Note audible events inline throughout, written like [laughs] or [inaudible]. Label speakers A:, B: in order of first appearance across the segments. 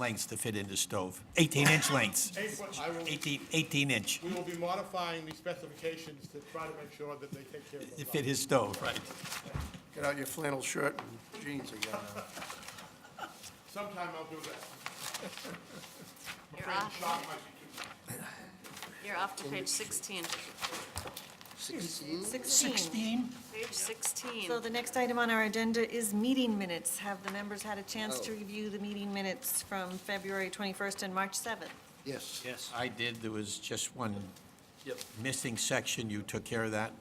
A: lengths to fit into stove, 18-inch lengths,
B: I will,
A: 18, 18-inch,
B: we will be modifying the specifications to try to make sure that they take care of
A: to
B: those.
A: fit his stove. Right.
C: Get out your flannel shirt and jeans again.
B: Sometime I'll do that.
D: You're
B: Frame
D: off,
B: shot might be too-
D: you're off to page 16.
C: [laughs] Sixteen?
E: 16.
D: Page 16.
E: So the next item on our agenda is meeting minutes. Have the members had a chance to
C: Oh.
E: review the meeting minutes from February 21st and March 7th?
C: Yes.
F: Yes,
A: I did, there was just one
F: yep,
A: missing section, you took care of that?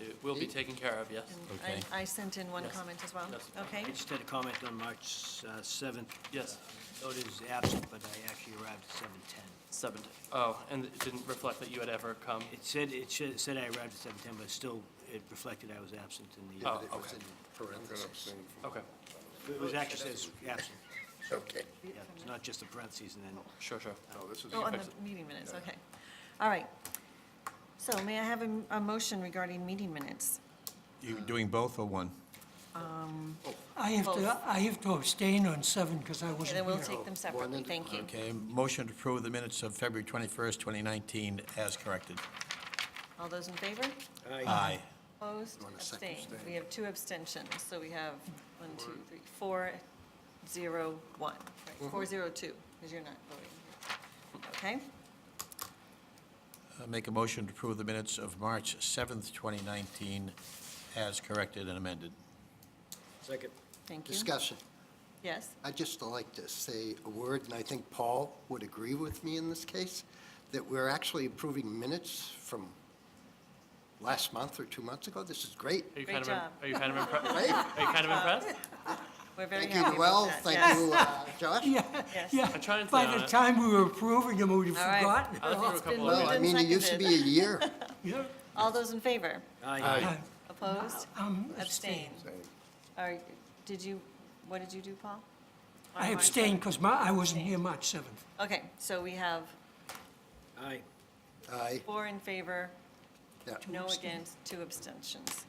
F: it will be taken care of, yes.
E: And
A: Okay.
E: I I sent in one
F: Yes.
E: comment as well.
F: Yes.
E: Okay,
G: I just had a comment on March uh, 7th.
F: Yes.
G: Noted as absent, but I actually arrived at 7:10.
F: Seven, oh, and it didn't reflect that you had ever come.
G: It said, it should- it said I arrived at 7:10, but still, it reflected I was absent in the,
F: Oh,
C: It was in parentheses.
F: Okay,
G: it was actually says absent.
C: Okay.
G: Yeah, it's not just the parentheses and then.
F: sure, sure.
E: oh, on the meeting minutes, okay. All right. So may I have a m- a motion regarding meeting minutes?
A: You doing both or one?
H: I have
E: Both.
H: to, I have to abstain on seven because I
E: Okay, then
H: wasn't
E: we'll
H: here.
E: take them separately,
C: at a
E: thank you.
A: Okay, motion to approve the minutes of February 21st, 2019, as corrected.
E: All those in favor?
A: Aye.
E: Opposed?
C: want a second
E: Abstained.
C: abstain?
E: We have two abstentions, so we have one, two, three, four, zero, one. Right,
C: Mm-hmm.
E: Four, zero, two, because you're not voting. Okay?
A: Uh, Make a motion to approve the minutes of March 7th, 2019, as corrected and amended.
G: Second.
E: Thank you.
C: Discussion.
E: Yes,
C: I'd just like to say a word, and I think Paul would agree with me in this case, that we're actually approving minutes from last month or two months ago. This is great.
F: Are you
E: Great
F: kind of, im-
E: job.
F: are you kind of impressed?
C: Great.
F: Are you kind of impressed?
E: we're very
C: Thank
E: happy
C: you,
E: about
C: Noel.
E: that.
C: Thank
E: Yes.
C: you, uh, Josh.
E: Yes.
H: Yeah,
F: I'm trying to uh,
H: by
F: think on
H: the
F: it.
H: time we were approving them, we'd
E: All right.
H: forgotten.
F: I looked through a couple
E: Well,
F: of
C: No,
F: meetings.
C: I mean, it used to be a
E: [laughs]
C: year.
H: Yeah.
E: All those in favor?
G: Aye.
H: I-
E: Opposed?
H: I'm
E: Abstained. All right, did you, what did you do, Paul? On
H: I
E: March
H: abstained because my, I wasn't here March 7th.
E: seventh? Okay, so we have
G: Aye.
C: Aye.
E: four in favor,
C: Yeah.
E: no
H: abstain.
E: against, two abstentions.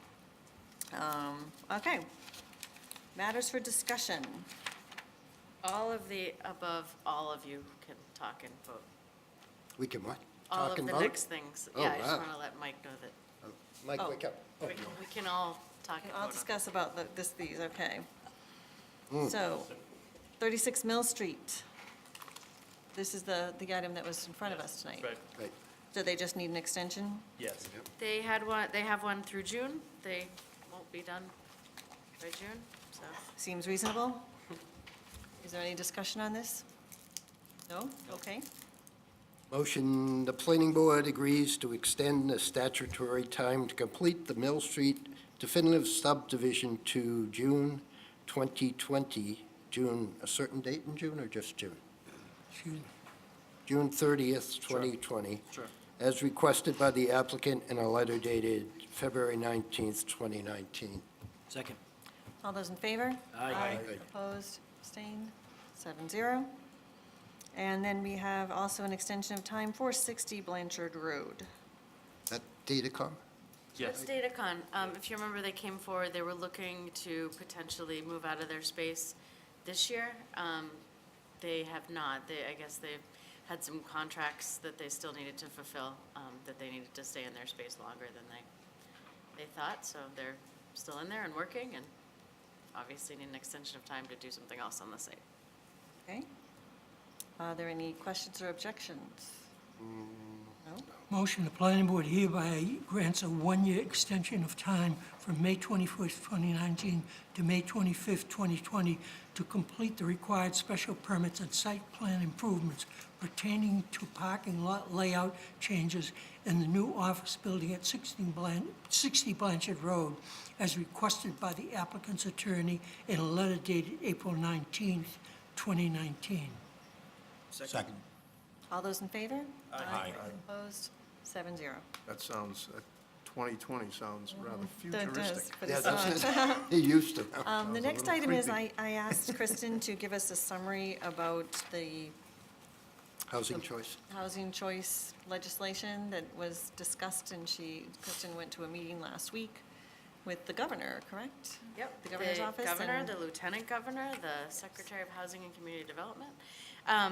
E: Um, Okay. Matters for discussion.
D: All of the above, all of you can talk and vote.
C: We can what?
D: All
C: Talk
D: of
C: and
D: the
C: vote?
D: next things.
C: Oh,
D: Yeah, I just
C: wow.
D: want to let Mike know that
C: Oh, Mike,
E: Oh.
C: wake up.
D: we- we can all talk and vote.
E: I'll
D: on-
E: discuss about the- this, these, okay.
G: Hmm.
E: So, 36 Mill Street. This is the, the item that was in front of us tonight.
F: Right,
C: Right.
E: Do they just need an extension?
F: yes.
D: They had one, they have one through June. They won't be done by June, so.
E: Seems reasonable. Is there any discussion on this? No? Okay.
C: Motion, the planning board agrees to extend the statutory time to complete the Mill Street definitive subdivision to June 2020, June, a certain date in June or just June?
H: June.
C: June 30th, 2020.
F: Sure.
C: As requested by the applicant in a letter dated February 19th, 2019.
G: Second.
E: All those in favor?
G: Aye.
E: Opposed, abstained, seven zero. And then we have also an extension of time for 60 Blanchard Road.
C: That Datacom?
F: Yes.
D: It's Datacon. Um, If you remember, they came forward, they were looking to potentially move out of their space this year. Um, They have not. They, I guess they've had some contracts that they still needed to fulfill, um, that they needed to stay in their space longer than they, they thought. So they're still in there and working and obviously need an extension of time to do something else on the site.
E: Okay? Are there any questions or objections? No?
H: Motion, the planning board hereby grants a one-year extension of time from May 21st, 2019 to May 25th, 2020 to complete the required special permits and site plan improvements pertaining to parking lot layout changes in the new office building at 16 Blan- 60 Blanchard Road as requested by the applicant's attorney in a letter dated April 19th, 2019.
A: Second.
E: All those in favor?
A: Aye.
E: Opposed, seven zero.
I: That sounds, that 2020 sounds rather
E: That does,
I: futuristic.
E: but
C: Yeah,
E: it's not.
C: that's it.
E: [laughs]
C: He used to.
E: Um, The
I: Sounds a
E: next
I: little
E: item is I
I: creepy.
E: I asked Kristen to give us a summary about the
C: Housing choice.
E: housing choice legislation that was discussed, and she, Kristen went to a meeting last week with the governor, correct? The governor's office?
D: governor,
E: and-
D: the lieutenant governor, the secretary of housing and community development. Um,